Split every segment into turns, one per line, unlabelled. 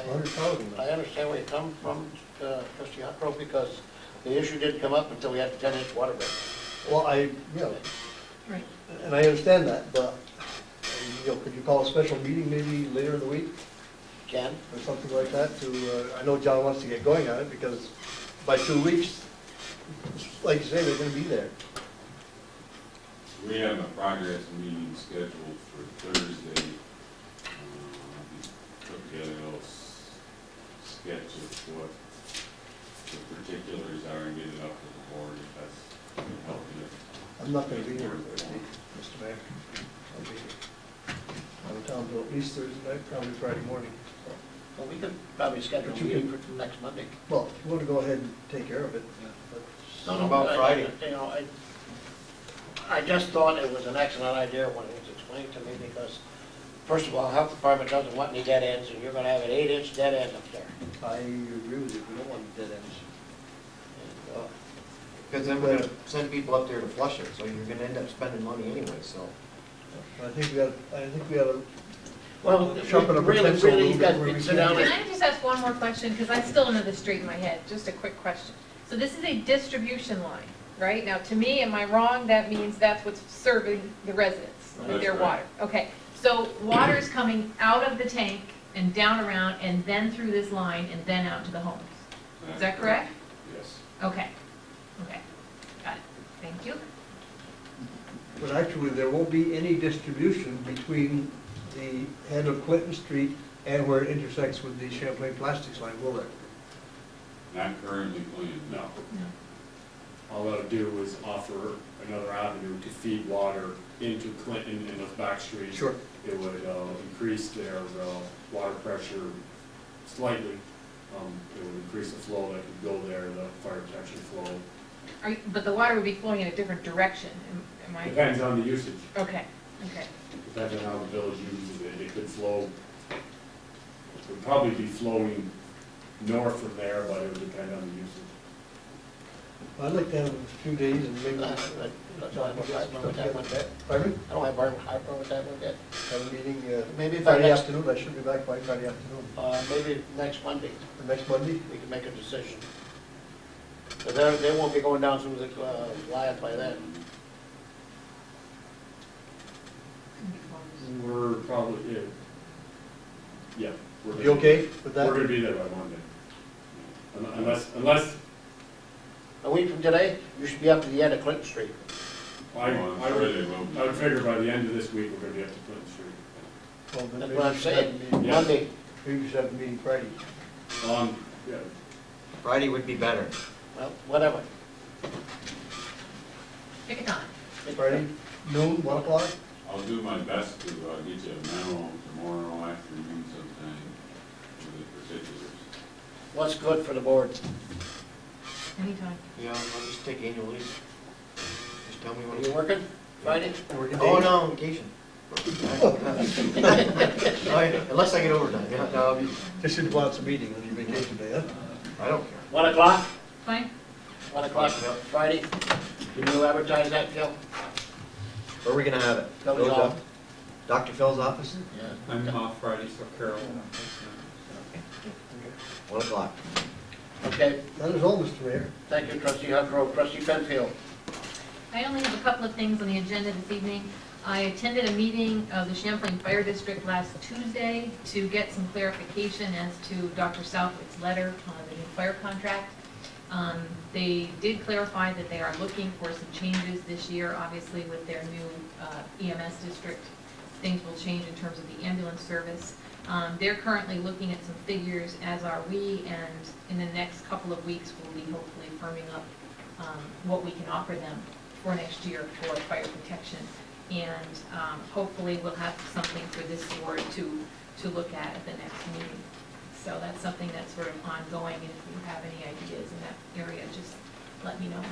hundred thousand.
I understand where you come from, uh, trustee Huckrow, because the issue didn't come up until we had the ten-inch water break.
Well, I, yeah,
Right.
and I understand that, but, you know, could you call a special meeting maybe later in the week
Ken,
or something like that to, uh, I know John wants to get going on it because by two weeks, like you say, they're gonna be there.
We have a progress meeting scheduled for Thursday. Um, we Put together a little s- sketch of what the particulars are and get it up to the board if that's helping it.
I'm not gonna be there Thursday, Mr. Mayor. I'll be out of town till at least Thursday night, probably Friday morning.
well, we could probably schedule a meeting for next Monday.
Well, if you wanna go ahead and take care of it, but
No, no,
About
I- I-
Friday.
Uh, You know, I, I just thought it was an excellent idea when it was explained to me, because first of all, health department doesn't want any dead ends, and you're gonna have an eight-inch dead end up there.
I agree with you, we don't want dead ends.
And, uh,
Because then we're gonna send people up there to flush it, so you're gonna end up spending money anyway, so.
I think we gotta, I think we gotta
Well,
Sharpen up our
really,
pencil a
really,
little
you
bit
guys
where we
can sit
can.
down
Can
and
I just ask one more question, because I still don't know the street in my head, just a quick question. So this is a distribution line, right? Now, to me, am I wrong, that means that's what's serving the residents with their
That's right.
water? Okay, so water is coming out of the tank and down around, and then through this line, and then out to the homes? Is that correct?
Yes.
Okay, okay, got it, thank you.
But actually, there won't be any distribution between the head of Clinton Street and where it intersects with the Champlain Plastics line, will there?
Not currently planned, no.
All that'll do is offer another avenue to feed water into Clinton and those back streets.
Sure.
It would uh, increase their uh, water pressure slightly. Um, It would increase the flow that could go there, the fire protection flow.
Are you- But the water would be flowing in a different direction, am am I?
Depends on the usage,
Okay, okay.
depends on how the village uses it. It could flow, it would probably be flowing north from there, but it would depend on the usage.
I'd like to have a few days and maybe.
Uh, but- but I don't have a problem with that one bit.
Pardon?
I don't have a problem with that one bit.
Have a meeting uh,
Maybe if I
Friday
next,
afternoon, I should be back by Friday afternoon,
uh, maybe next Monday,
or next Monday.
we can make a decision. But they, they won't be going down through the, uh, line by then.
We're probably, yeah. yeah. we're
You okay with
We're
that?
gonna be there by Monday. Un- Unless, unless,
A week from today, you should be up to the end of Clinton Street.
I,
Well, I'm
I
sure
would,
they will be.
I would figure by the end of this week, we're gonna be up to Clinton Street.
Well, then
That's
maybe
what I'm
we should have a
saying,
meeting-
Yeah.
Monday.
Maybe we should have a meeting Friday.
Um, yeah,
Friday would be better.
Well, whatever.
Pick a time.
Friday, noon, one o'clock?
I'll do my best to uh, get you a memo tomorrow afternoon sometime with the particulars.
What's good for the board?
Anytime.
Yeah, I'll just take annual leave. Just tell me
Are
when
you
to.
working Friday?
Working
Oh,
days?
no, I'm on vacation. I- Unless I get overtime, yeah, no, I'll be,
This is what's a meeting, on your vacation day, huh?
I don't care.
One o'clock?
Fine?
One o'clock
Yep.
Friday? Can you advertise that, Phil?
Where are we gonna have it?
Phil's
Phil's
off.
off- Dr. Phil's office,
Yeah.
I'm off Friday, so Carol.
one o'clock.
Okay,
That is all, Mr. Mayor.
thank you, trustee Huckrow, trustee Penfield.
I only have a couple of things on the agenda this evening. I attended a meeting of the Champlain Fire District last Tuesday to get some clarification as to Dr. Southwick's letter on the new fire contract. Um, They did clarify that they are looking for some changes this year, obviously with their new uh, EMS district. Things will change in terms of the ambulance service. Um, They're currently looking at some figures, as are we, and in the next couple of weeks, we'll be hopefully firming up um, what we can offer them for next year for fire protection. And um, hopefully, we'll have something for this board to, to look at at the next meeting. So that's something that's sort of ongoing, and if you have any ideas in that area, just let me know.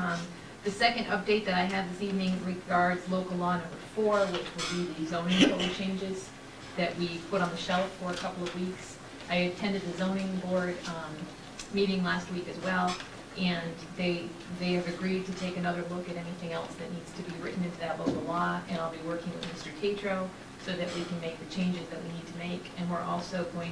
Um, The second update that I have this evening regards local law number four, which will be the zoning code changes that we put on the shelf for a couple of weeks. I attended the zoning board um, meeting last week as well, and they, they have agreed to take another look at anything else that needs to be written into that local law, and I'll be working with Mr. Tatro so that we can make the changes that we need to make, and we're also going